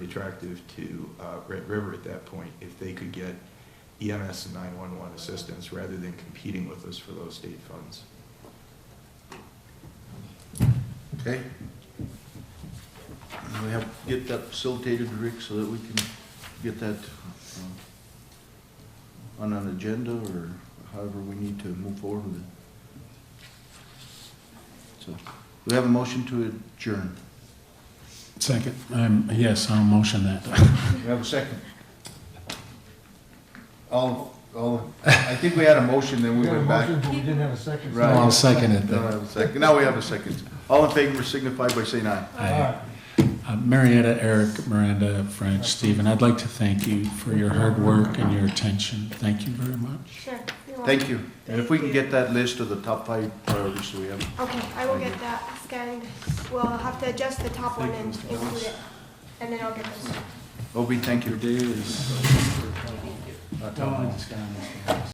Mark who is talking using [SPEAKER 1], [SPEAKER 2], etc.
[SPEAKER 1] attractive to uh, Red River at that point if they could get EMS and 911 assistance rather than competing with us for those state funds.
[SPEAKER 2] Okay. And We have, get that facilitated, Rick, so that we can get that uh, on an agenda or however we need to move forward with it. So, we have a motion to adjourn.
[SPEAKER 3] Second, um, yes, I'll motion that.
[SPEAKER 2] We have a second. All, all, I think we had a motion, then we went back.
[SPEAKER 4] but we didn't have a second.
[SPEAKER 3] No,
[SPEAKER 2] Right.
[SPEAKER 3] I'll second it
[SPEAKER 2] Now we
[SPEAKER 3] then.
[SPEAKER 2] have a second, now we have a second. All in favor signify by saying aye.
[SPEAKER 3] I- uh, Marietta, Eric, Miranda, Frank, Stephen, I'd like to thank you for your hard work and your attention. Thank you very much.
[SPEAKER 5] Sure. you're
[SPEAKER 2] Thank
[SPEAKER 5] welcome.
[SPEAKER 2] you. And if we can get that list of the top five priorities, so we have
[SPEAKER 5] Okay, I will get that scanned. We'll have to adjust the top one and include it, and then I'll get this.
[SPEAKER 2] Obi, thank you.
[SPEAKER 3] day is.